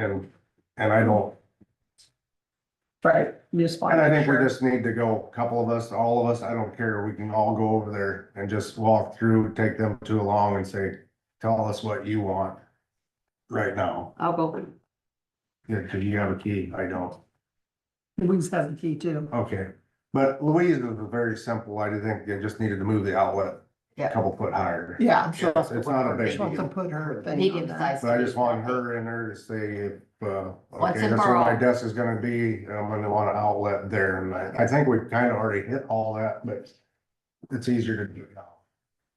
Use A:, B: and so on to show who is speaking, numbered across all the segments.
A: And, and I don't,
B: Right, you just want.
A: and I
B: to
A: think we
B: make
A: just need to go, a couple of us, all of us, I don't care, we can all go over there and just walk through, take them too along and say, tell us what you want right now,
B: sure. I'll go,
A: Yeah, 'cause you have a key, I don't.
B: Louise has the key too.
A: Okay, but Louise is very simple, I do think they just needed to move the outlet a
C: Yeah.
A: couple foot higher.
B: Yeah,
A: It's it's not a big
B: supposed to
A: deal,
B: put her thing on
C: Medium
B: that.
C: size.
A: but I just want her in there to say, uh,
C: What's
A: okay,
C: in
A: that's where my
C: Burl?
A: desk is gonna be, and I'm gonna want an outlet there, and I, I think we've kind of already hit all that, but it's easier to do now.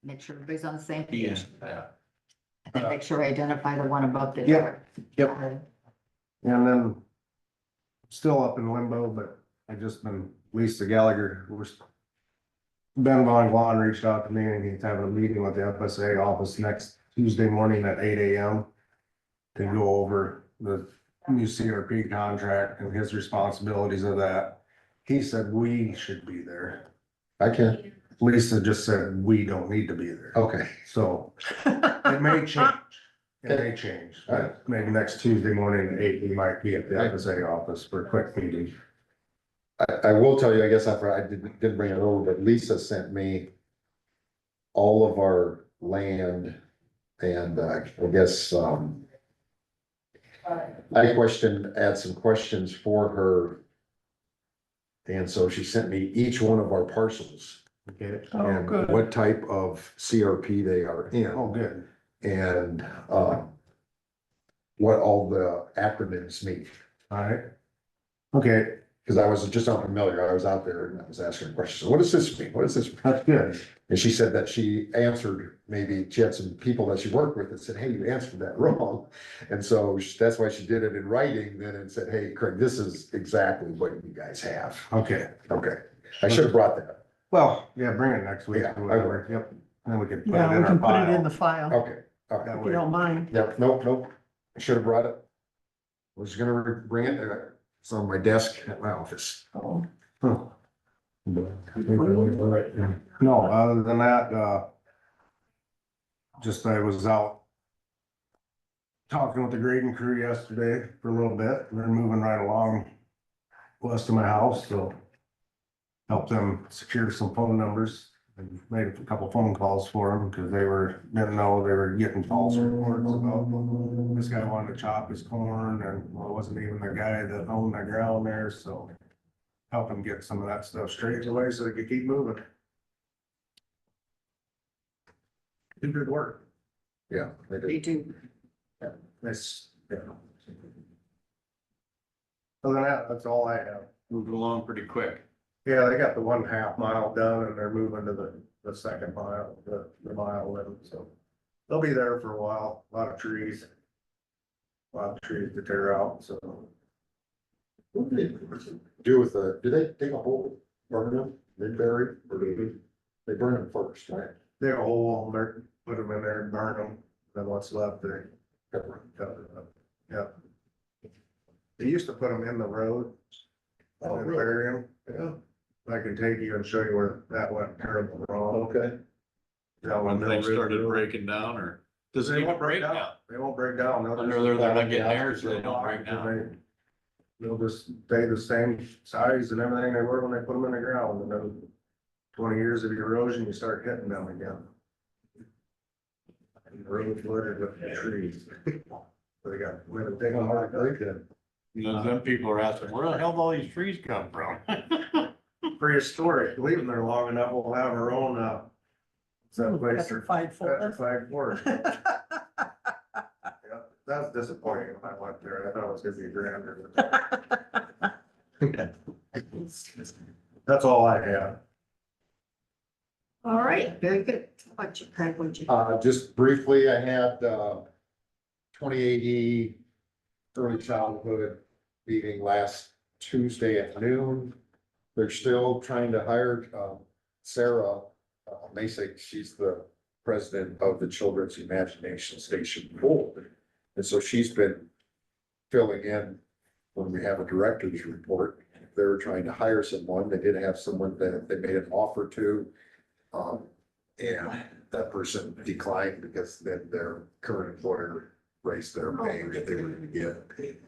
C: Make sure everybody's on the same
D: Yeah.
C: page. And then make sure I identify the one above the
A: Yep.
C: other.
A: Yep. And then still up in limbo, but I just been, Lisa Gallagher was. Ben Von Glan reached out to me and he's having a meeting with the FSA office next Tuesday morning at eight AM. To go over the new CRP contract and his responsibilities of that. He said we should be there.
E: I can,
A: Lisa just said we don't need to be there.
E: okay,
A: So it may change. It may change.
E: Alright.
A: Maybe next Tuesday morning at eight, we might be at the FSA office for a quick meeting.
E: I, I will tell you, I guess I, forgot- I didn't, didn't bring it over, but Lisa sent me. All of our land and uh, I guess, um. I questioned, had some questions for her. And so she sent me each one of our parcels
A: Okay.
B: Oh,
E: and
B: good.
E: what type of CRP they are
A: Oh,
E: in
A: good.
E: and, um. What all the acronyms mean.
A: Alright. Okay,
E: Cause I was just unfamiliar. I was out there and I was asking questions. What does this mean? What does this? mean?"
A: that's good.
E: And she said that she answered, maybe she had some people that she worked with that said, hey, you answered that wrong. And so she- that's why she did it in writing then and said, hey, Craig, this is exactly what you guys have.
A: Okay.
E: Okay. I should have brought that. up.
A: Well, yeah, bring it next week
E: Yeah, I
A: or
E: will.
A: whatever. Yep. Then we can put it in
B: Yeah, we
A: our
B: can put it
A: file. Oh,
B: in the file,
E: Okay. All right.
A: That
B: if you don't
A: way.
B: mind.
E: Yep. Nope, nope. I should have brought it. I Was gonna re- bring it. uh, It's on my desk at my office.
B: Oh,
A: Huh.
E: Well,
A: No, other than that, uh. Just I was out. Talking with the grading crew yesterday for a little bit, they're moving right along. West of my house, so. Helped them secure some phone numbers and made a couple phone calls for them because they were, didn't know they were getting false reports about. This guy wanted to chop his corn and well, it wasn't even the guy that owned the ground there, so. Help them get some of that stuff straightened away so they could keep moving. Do good work.
E: Yeah. they did.
C: You do.
A: That's, yeah. Other than that, that's all I have.
D: Moved along pretty quick.
A: Yeah, they got the one half mile done and they're moving to the, the second mile, the, the mile limit, so. They'll be there for a while, a lot of trees. a Lot of trees to tear out, so.
E: What do they Do with the, do they dig a hole, burn them, they bury, or do they, they burn them first, right?
A: They're all, they're, put them in there and burn them, then what's left, they cover it up, yeah. They used to put them in the road.
E: Oh,
A: And then
E: really?
A: bury them.
E: Yeah,
A: I can take you and show you where that went terrible wrong.
E: okay.
A: That
D: When
A: one
D: they started
A: breaking.
D: breaking down or does it
A: They
D: even
A: won't
D: break
A: break
D: down?
A: down. They won't break down. They'll
D: Under
A: just-
D: there, they're not getting air, so they don't break down.
A: They'll just stay the same size and everything they were when they put them in the ground and then twenty years of erosion, you start hitting them again. And the Road flooded with trees. So They got, we had to dig them hard, break them.
D: You know, them people are asking, where the hell did all these trees come from?
A: Prehistoric, leave them there long enough, we'll have our own, uh, some place for
B: Petrified forest.
A: petrified forest. Yeah, That was disappointing when I went there. I thought it was gonna be grander. That's all I have.
C: All right, very good. What you, Craig, what you?
E: Uh, just briefly, I had, uh, twenty eighty early childhood meeting last Tuesday at noon. They're still trying to hire, um, Sarah uh, Masek, she's the president of the Children's Imagination Station Board. And so she's been filling in when we have a director's report. They were trying to hire someone. They did have someone that they made an offer to. Um, and that person declined because then their current employer raise their pay that they were gonna get.